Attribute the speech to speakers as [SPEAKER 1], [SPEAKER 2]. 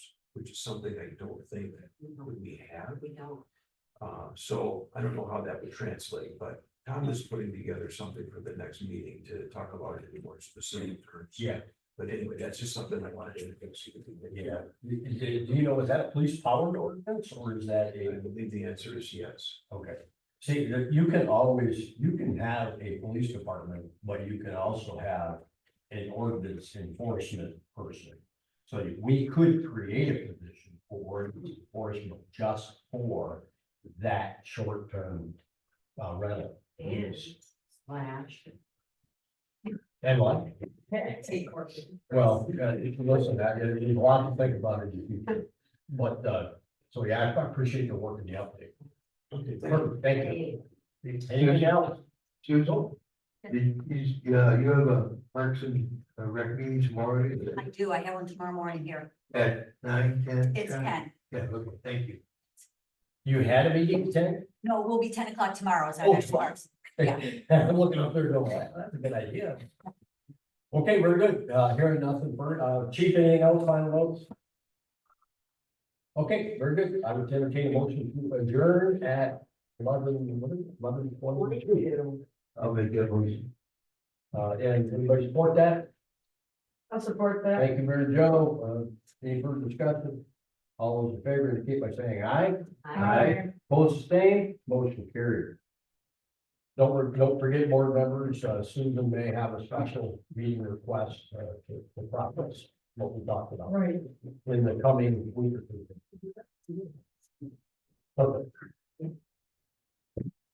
[SPEAKER 1] which is something I don't think that we have.
[SPEAKER 2] We don't.
[SPEAKER 1] Uh, so I don't know how that would translate, but Tom is putting together something for the next meeting to talk about it in more specific terms.
[SPEAKER 3] Yeah.
[SPEAKER 1] But anyway, that's just something I wanted to consider.
[SPEAKER 3] Yeah, do, do- do you know, is that a police powered ordinance or is that
[SPEAKER 1] I
[SPEAKER 3] a,
[SPEAKER 1] believe the answer is yes.
[SPEAKER 3] okay. See, there- you can always, you can have a police department, but you can also have an ordinance enforcement person. So we could create a position for ordinance enforcement just for that short term uh, rental.
[SPEAKER 2] And slash.
[SPEAKER 3] And what?
[SPEAKER 2] Take action.
[SPEAKER 3] Well, uh, if you listen, that, it- it's a lot to think about in the future. But, uh, so yeah, I appreciate the work and the update.
[SPEAKER 4] Okay,
[SPEAKER 3] Perfect, Thank you.
[SPEAKER 2] Hey,
[SPEAKER 3] Anything else?
[SPEAKER 4] Susan, did uh, you, uh, you have a Parks and uh, Rec meeting tomorrow is it
[SPEAKER 5] I do, I have one tomorrow morning here.
[SPEAKER 4] at nine, ten?
[SPEAKER 5] It's ten.
[SPEAKER 4] Yeah, okay, thank you.
[SPEAKER 3] You had a meeting, Ted?
[SPEAKER 5] No, it will be ten o'clock tomorrow is our
[SPEAKER 3] Oh,
[SPEAKER 5] next
[SPEAKER 3] tomorrow.
[SPEAKER 5] one. Yeah.
[SPEAKER 3] I'm looking up there going, "Wow, that's a good idea. Okay, very good. Uh, hearing nothing further. Uh, chief, anything else, final notes? Okay, very good. I would entertain a motion to adjourn at eleven, what is it, eleven twenty-two.
[SPEAKER 4] I'll make that motion.
[SPEAKER 3] Uh, and everybody support that?
[SPEAKER 2] I'll support that.
[SPEAKER 3] Thank you, Mary Jo. Uh, any further discussion? All those in favor indicate by saying aye. Aye. Opposed, sustained, motion carried. Don't, re- don't forget, board members, uh, Susan may have a special meeting request, uh, to, to process what we talked about
[SPEAKER 2] Right.
[SPEAKER 3] in the coming week or two. Perfect.